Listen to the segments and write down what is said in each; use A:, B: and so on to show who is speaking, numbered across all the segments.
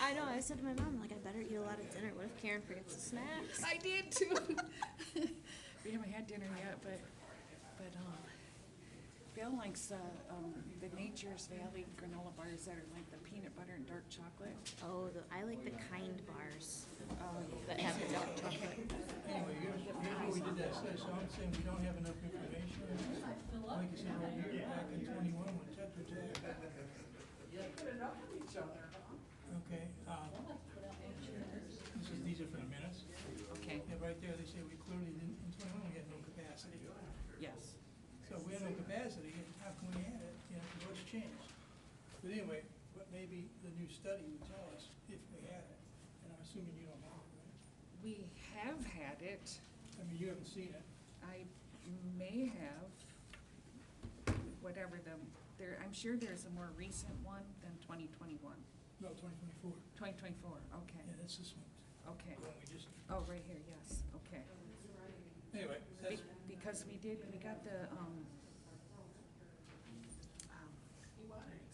A: I know. I said to my mom, like, I better eat a lot of dinner. What if Karen forgets the snacks?
B: I did too. we haven't had dinner yet, but, but, um, Bill likes, uh, um, the Nature's Valley granola bars that are like the peanut butter and dark chocolate.
A: Oh, the, I like the kind bars
B: Oh,
A: that have the dark chocolate.
C: Anyway, here's, here's what we did that says, so I'm saying we don't have enough information. Like you said, over here, back in twenty-one, when Tetra Tech. Okay, uh, this is, these are for the minutes.
B: okay,
C: Yeah, right there, they say we clearly didn't, in twenty-one, we had no capacity.
B: yes.
C: So if we had no capacity, how can we add it? You know, what's changed? But anyway, but maybe the new study would tell us if we had it, and I'm assuming you don't have it, right?
B: We have had it.
C: I mean, you haven't seen it.
B: I may have, whatever the, there, I'm sure there's a more recent one than 2021.
C: No, twenty twenty-four.
B: 2024, okay,
C: Yeah, that's this one.
B: okay.
C: Well, we just,
B: Oh, right here, yes, okay.
C: anyway, that's,
B: Be- Because we did, we got the, um, um,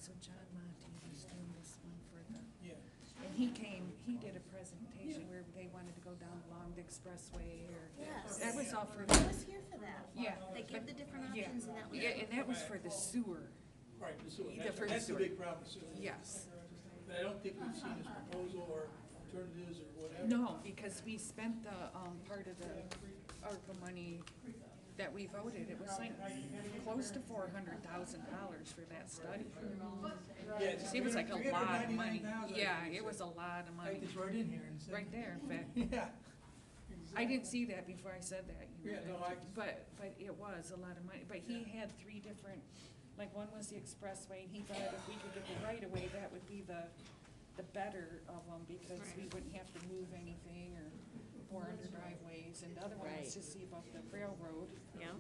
B: so John Monty was doing this one for the,
C: yeah,
B: and he came, he did a presentation where they wanted to go down along the expressway or,
A: Yes.
B: that was all for,
A: I was here for that.
B: yeah,
A: They give the different
B: yeah.
A: options and that was.
B: Yeah, and that was for the sewer,
C: right, the sewer,
B: Either
C: that's,
B: for the
C: that's the
B: sewer.
C: big problem, the sewer.
B: yes.
C: But I don't think we've seen this proposal or alternatives or whatever.
B: No, because we spent the, um, part of the ARPA money that we voted, it was like close to four hundred thousand dollars for that study.
C: Yeah, it's
B: It was like a lot of money,
C: $399,000.
B: yeah, it was a lot of money,
C: Like it's right in here and said.
B: right there, in fact. I
C: Yeah.
B: didn't see that before I said that, you know.
C: Yeah, no, I-
B: But, but it was a lot of money, but he had three different, like, one was the expressway, and he thought if we could get the right of way, that would be the, the better of them, because we wouldn't have to move anything or bore under driveways, and the other one was
A: Right.
B: to see about the railroad.
A: Yeah.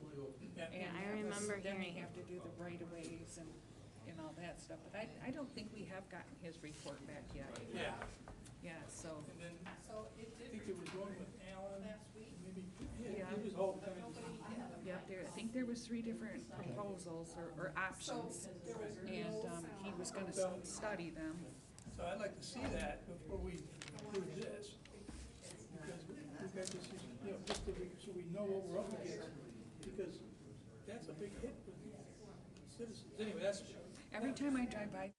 C: Yeah.
A: I
B: and that was-
A: remember
B: Then
A: hearing-
B: we have to do the right of ways and, and all that stuff, but I, I don't think we have gotten his report back yet,
C: Yeah,
B: yeah, so,
C: and then, I think there was one with Alan, maybe, yeah,
B: Yeah.
C: it was all kind of.
B: yeah, there, I think there was three different proposals or, or options. And, um, he was gonna s- study them.
C: So I'd like to see that before we approve this. Because we- we've got this, you know, just so we, so we know what we're up against, because that's a big hit with citizens. Anyway, that's,
B: Every time I drive by,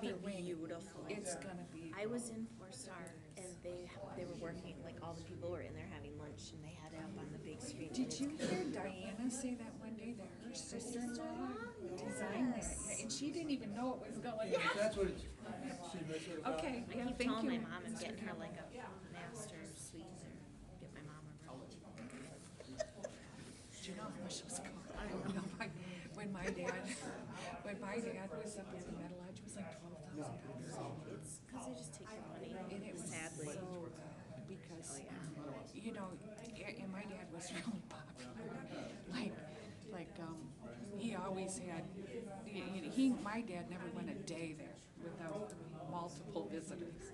A: Be beautiful.
B: it's gonna be,
A: I was in Four Star and they they were working like all the people were in there having lunch and they had it up on the big screen. and
B: did
A: it's
B: you hear Diana say that one day that her sister-in-law designed that? Yeah, And she didn't even know it was going.
C: anyway, that's what it's, should be sort of about.
B: Okay,
A: I
B: yeah,
A: keep
B: thank
A: telling my
B: you.
A: mom I'm getting her like a master suite or get my mom a room.
B: Do you know how much those cost? I don't know. My- When my dad, when my dad was up at the metal lodge, it was like twelve thousand dollars.
A: It's because they just take your money.
B: And it was
A: Sadly.
B: so, bad because, you know, a- and my dad was really popular. Like, like, um, he always had, he- he, my dad never went a day there without multiple visitors.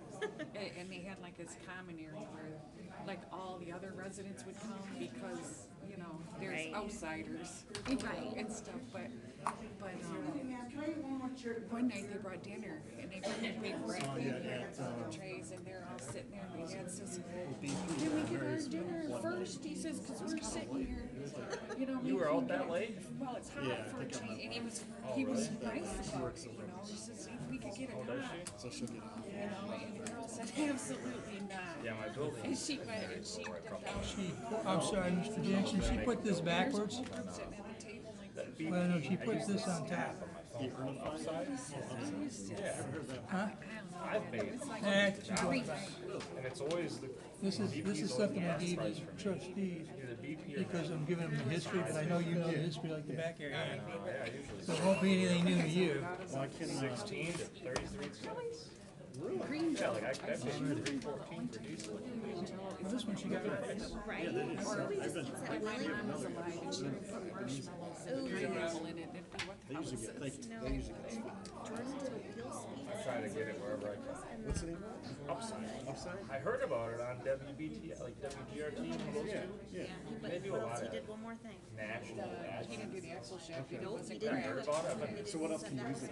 B: And, and they had like this common area where, like, all the other residents would come because, you know, there's
A: Right.
B: outsiders. And stuff, but, but, um, one night they brought dinner and they brought a big rack and they had some trays and they're all sitting there. My dad says, "Did we get our dinner first?" He says, "Cause we're sitting here, you know." You were out that late? Well, it's hot for a change, and he was, he was nice about it, you know. He says, "If we could get it hot."
D: So she'll get
B: You know, and the girl said, "Absolutely not."
D: Yeah, my building.
B: And she went and she dipped out.
C: I'm sorry, Mr. Jackson, she put this backwards,
B: I'm sitting at the table like that.
C: well, no, she puts this on top.
D: The earth upside,
C: Huh?
D: I've paid, it.
C: Eh, she goes back.
D: and it's always the.
C: This is, this is something I gave
D: Price
C: as
D: for me.
C: trustees,
D: Either BP or.
C: because I'm giving them the history, but I know you know the history like the back area.
D: Yeah, usually
C: So it won't be anything new to you.
D: sixteen to thirty-three cents.
B: Green
D: Yeah, like I, I paid three fourteen for diesel.
C: This one she got twice.
A: Right? Or we just eat that
B: My mom was
A: willy-
B: alive and she would put marshmallows and pineapple in it. It'd be what the hell is this?
A: No. Jordan did a wheel
D: I
A: speed.
D: try to get it wherever I can.
A: And then
D: Upside. Upside? I heard about it on WBT, like WGRT. Yeah. They do a lot
A: he
D: of
A: did one more thing.
D: national ads.
B: He didn't do the axle shaft. He
A: Nope,
B: wasn't
A: he
D: I
A: didn't.
D: heard about it, I've been
A: So what else can you use